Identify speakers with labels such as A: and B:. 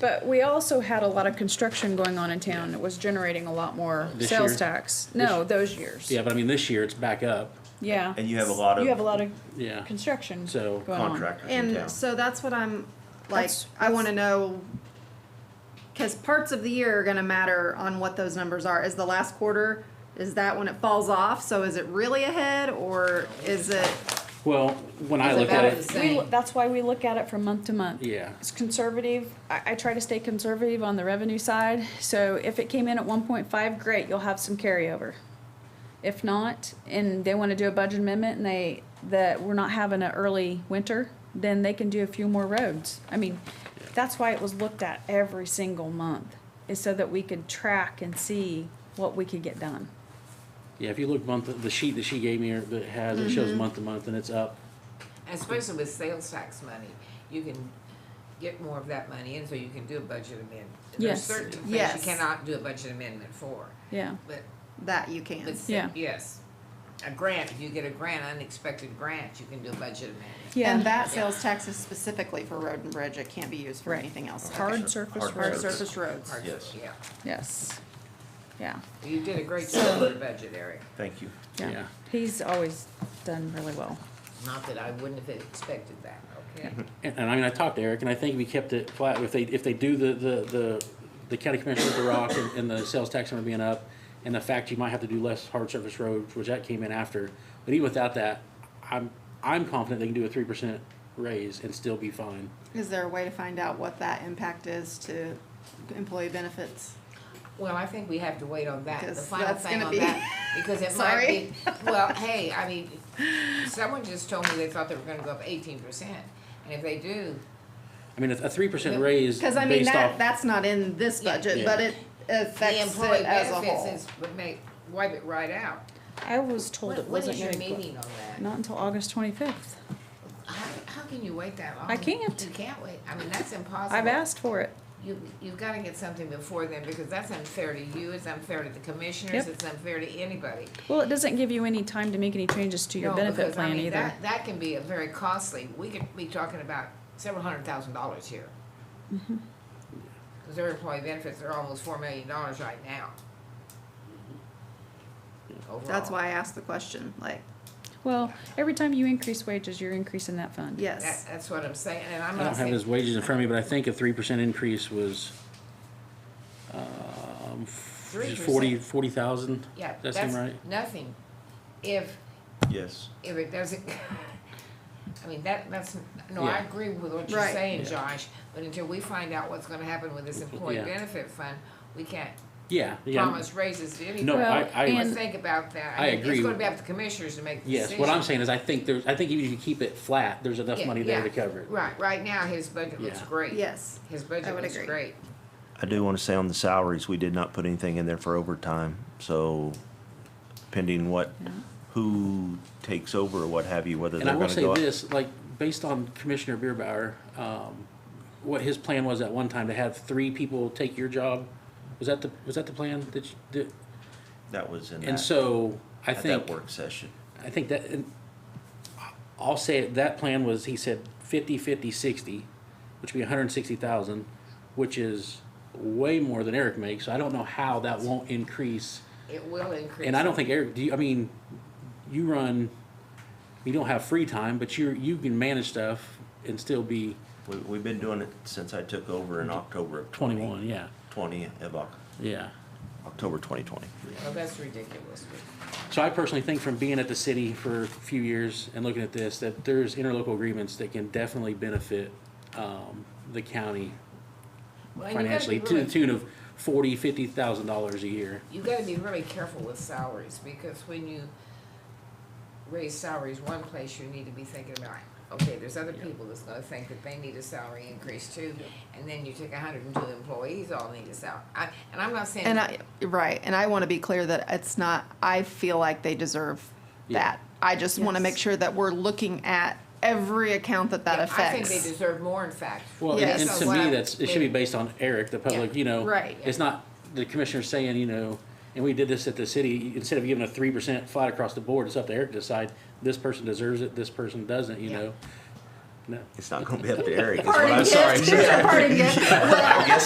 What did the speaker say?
A: But we also had a lot of construction going on in town. It was generating a lot more
B: This
A: sales
B: year?
A: tax. No, those years.
B: Yeah, but I mean, this year it's back up,
A: Yeah.
C: And you have a lot of-
A: You have a lot of
B: yeah.
A: construction
B: So-
A: going on.
C: Contractors in town.
D: And so that's what I'm like.
A: That's-
D: I want to know because parts of the year are going to matter on what those numbers are. Is the last quarter? Is that when it falls off? So is it really ahead or is it?
B: Well, when I
E: It's
B: look at
E: about the
B: it,
E: same.
A: We, lo- that's why we look at it from month to month.
B: Yeah.
A: It's conservative. I, I try to stay conservative on the revenue side. So if it came in at one point five, great, you'll have some carryover. If not, and they wanna do a budget amendment and they, that we're not having an early winter, then they can do a few more roads. I mean, that's why it was looked at every single month, is so that we could track and see what we could get done.
B: yeah, if you look month, the sheet that she gave me that has, it
D: Mm-hmm.
B: shows month to month and it's up.
E: And especially with sales tax money, you can get more of that money in, so you can do a budget amendment. There's
A: Yes.
E: certain things you
D: Yes.
E: cannot do a budget amendment for,
A: Yeah,
E: but,
D: That you can.
E: but, s-
A: Yeah.
E: yes. A grant, if you get a grant, unexpected grant, you can do a budget amendment.
A: yeah.
D: And that sales tax is specifically for road and bridge. It can't be used for
A: Right.
D: anything else.
A: Hard surface
C: Hard
D: Hard
A: roads.
C: surface.
D: surface roads.
E: Or-
C: Yes.
E: Yeah,
A: Yes, yeah.
E: you did a great job with the budget, Eric,
C: Thank you.
A: Yeah,
B: Yeah.
A: he's always done really well.
E: not that I wouldn't have expected that, okay?
B: And, and I mean, I talked to Eric, and I think we kept it flat. If they, if they do the, the, the, the county commissioner at the rock and, and the sales tax number being up, and the fact you might have to do less hard surface roads, which that came in after, but even without that, I'm, I'm confident they can do a three percent raise and still be fine.
D: Is there a way to find out what that impact is to employee benefits?
E: Well, I think we have to wait on that, the
D: Because
E: final
D: that's
E: thing
D: gonna
E: on
D: be-
E: that, because it might
D: Sorry.
E: be, well, hey, I mean, someone just told me they thought they were gonna go up eighteen percent. And if they do,
B: I mean, a, a three percent raise
D: Because I mean
B: based
D: that
B: off,
D: that's not in this
E: Yeah.
D: budget,
B: Yeah.
D: but it
E: the
D: affects
E: employee
D: it as a whole.
E: benefits is, would make, wipe it right out.
A: I was told
E: When,
A: it
E: when
A: wasn't
E: is your
A: gonna go.
E: meeting on that?
A: Not until August twenty-fifth.
E: How, how can you wait that long?
A: I can't.
E: You can't wait, I mean, that's impossible.
A: I've asked for it.
E: You, you've gotta get something before then, because that's unfair to you, it's unfair to the commissioners,
A: Yep.
E: it's unfair to anybody.
A: Well, it doesn't give you any time to make any changes to your
E: No,
A: benefit
E: because, I
A: plan
E: mean,
A: either.
E: that- That can be a very costly, we could be talking about several hundred thousand dollars here. Cause their employee benefits are almost four million dollars right now.
D: That's
E: Overall.
D: why I asked the question. Like,
A: Well, every time you increase wages, you're increasing that fund.
E: That,
D: yes,
E: that's what I'm saying, and
B: I
E: I'm not
B: don't have
E: saying,
B: his wages in front of me, but I think a three percent increase was, um,
E: Three
B: forty, forty thousand?
E: yeah,
B: That seem
E: that's
B: right?
E: nothing. If,
C: Yes.
E: if it doesn't, I mean, that, that's, no, I
B: Yeah.
E: agree with what you're
D: Right.
E: saying,
B: Yeah.
E: Josh, but until we find out what's gonna happen with this employee
B: Yeah.
E: benefit fund, we can't
B: Yeah, yeah.
E: promise raises to anybody.
B: No, I,
A: Well,
B: I.
A: and-
E: Let's think about that.
B: I
E: mean,
B: agree.
E: It's gonna be up to commissioners to make the decision.
B: Yes, what I'm saying is I think there's, I think even if you keep it flat, there's enough
E: Yeah,
B: money there to
E: yeah.
B: cover it.
E: Right, right now, his budget looks
B: Yeah.
E: great.
D: yes.
E: His
D: I
E: budget
D: would
E: looks
D: agree.
E: great.
C: I do want to say on the salaries, we did not put anything in there for overtime, so pending what, who takes over or what have you, whether
B: And
C: they're
B: I will
C: gonna
B: say
C: go up.
B: this, like, based on Commissioner Bierbauer, um, what his plan was at one time to have three people take your job, was that the, was that the plan that you, did?
C: That was in
B: And
C: that,
B: so, I
C: at
B: think.
C: that work session.
B: I think that, and I'll say it, that plan was, he said fifty, fifty, sixty, which would be hundred and sixty thousand, which is way more than Eric makes, so I don't know how that won't increase.
E: It will increase.
B: And I don't think Eric, do you, I mean, you run, you don't have free time, but you're, you can manage stuff and still be
C: We, we've been doing it since I took over in October of twenty.
B: twenty-one, yeah,
C: Twenty of Oc-
B: yeah.
C: October twenty twenty.
E: Well, that's ridiculous. but-
B: So I personally think from being at the city for a few years and looking at this, that there's interlocal agreements that can definitely benefit, um, the county
E: well, and you gotta
B: financially
E: be
B: to the
E: really-
B: tune of forty, fifty thousand dollars a year.
E: You gotta be really careful with salaries, because when you raise salaries one place, you need to be thinking about, okay, there's other people that's gonna think that they need a salary increase too, and then you take hundred and two employees all need a salary. I, and I'm not saying.
D: And I, right, and I want to be clear that it's not, I feel like they deserve
B: Yeah.
D: that. I just want to
A: Yes.
D: make sure that we're looking at every account that that
E: Yeah, I think they
D: affects.
E: deserve more, in fact.
B: Well,
D: Yes.
B: and, and
E: So
B: to
E: what
B: me,
E: I'm-
B: that's, it should be based on Eric, the public,
E: Yeah.
B: you know.
D: Right.
B: It's not the commissioner saying, you know, and we did this at the city, instead of giving a three percent flat across the board, it's up to Eric to decide, this person deserves it, this person doesn't, you
E: Yeah.
B: know?
F: No.
C: It's not gonna be up to Eric. is what
E: Party
C: I'm
E: gift,
C: sorry.
E: here's your party gift. Well,